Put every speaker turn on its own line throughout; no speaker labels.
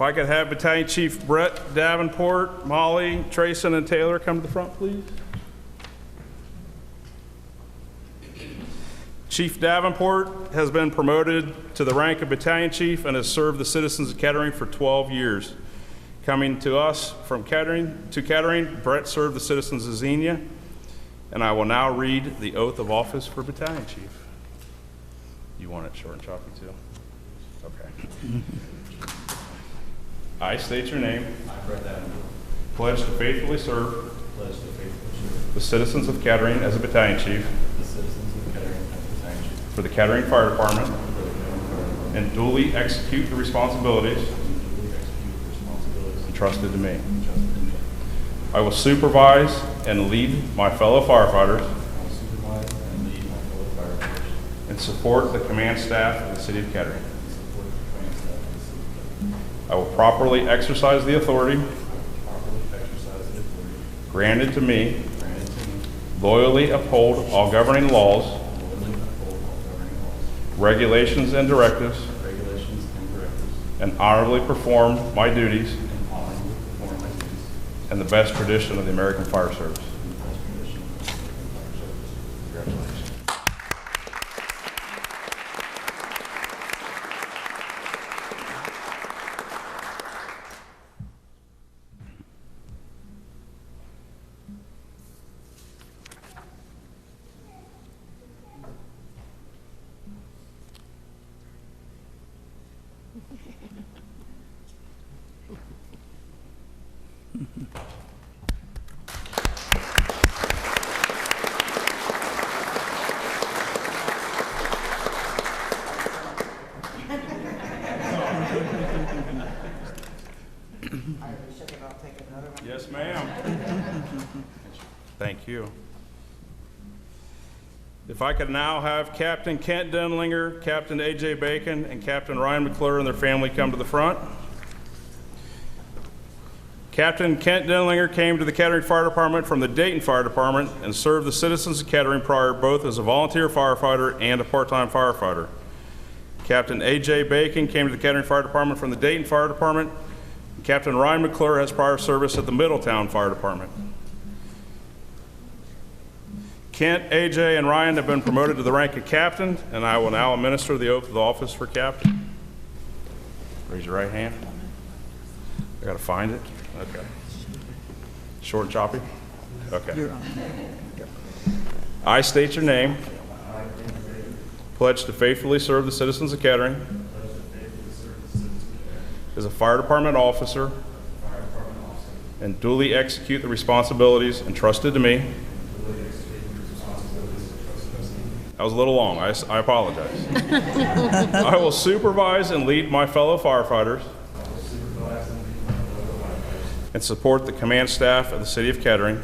I could have Battalion Chief Brett Davenport, Molly, Trayson, and Taylor come to the front, please. Chief Davenport has been promoted to the rank of battalion chief and has served the citizens of Kettering for 12 years. Coming to us from Kettering, to Kettering, Brett served the citizens of Xenia, and I will now read the oath of office for battalion chief. You want it short and choppy, too? Okay. I state your name.
I, Brett Davenport,
Pledge to faithfully serve
pledge to faithfully serve
the citizens of Kettering as a battalion chief
the citizens of Kettering and the township
for the Kettering Fire Department
for the government department
and duly execute the responsibilities
and duly execute the responsibilities
entrusted to me.
entrusted in me.
I will supervise and lead my fellow firefighters
I will supervise and lead my fellow firefighters
and support the command staff of the City of Kettering.
and support the training staff of the city of Kettering.
I will properly exercise the authority
I will properly exercise the authority
granted to me,
granted to me
loyally uphold all governing laws,
and loyally uphold all governing laws,
regulations, and directives,
regulations, and directives,
and honorably perform my duties
and honorably perform my duties
and the best tradition of the American Fire Service.
in the best tradition of the American fire service. Congratulations.
I already shook it off, take another one.
Yes, ma'am. Thank you. If I could now have Captain Kent Denlinger, Captain A.J. Bacon, and Captain Ryan McClure and their family come to the front. Captain Kent Denlinger came to the Kettering Fire Department from the Dayton Fire Department and served the citizens of Kettering prior both as a volunteer firefighter and a part-time firefighter. Captain A.J. Bacon came to the Kettering Fire Department from the Dayton Fire Department. Captain Ryan McClure has prior service at the Middletown Fire Department. Kent, A.J., and Ryan have been promoted to the rank of captain, and I will now administer the oath of office for captain. Raise your right hand. I gotta find it? Okay. Short and choppy? Okay. I state your name. Pledge to faithfully serve the citizens of Kettering. As a fire department officer. And duly execute the responsibilities entrusted to me. That was a little long, I s- I apologize. I will supervise and lead my fellow firefighters. And support the command staff of the city of Kettering.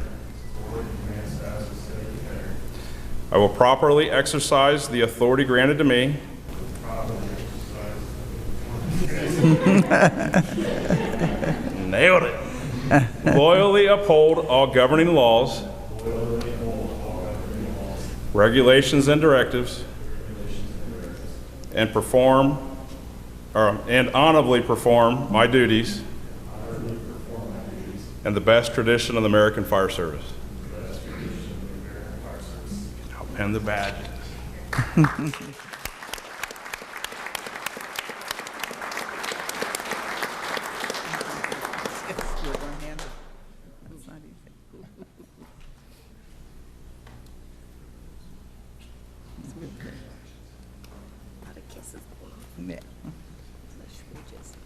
I will properly exercise the authority granted to me. Nailed it. Loyally uphold all governing laws. Regulations and directives. And perform, or, and honorably perform my duties. And the best tradition of the American Fire Service. I'll pin the badges.
You're one-handed. It's not easy.
lot of kisses.
Yeah.
Let's just.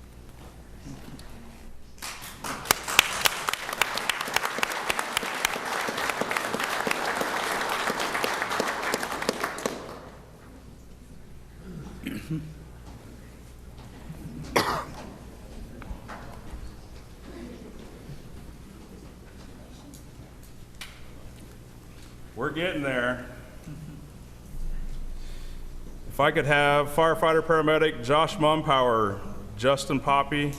We're getting there. If I could have firefighter paramedic Josh Mumpower, Justin Poppy,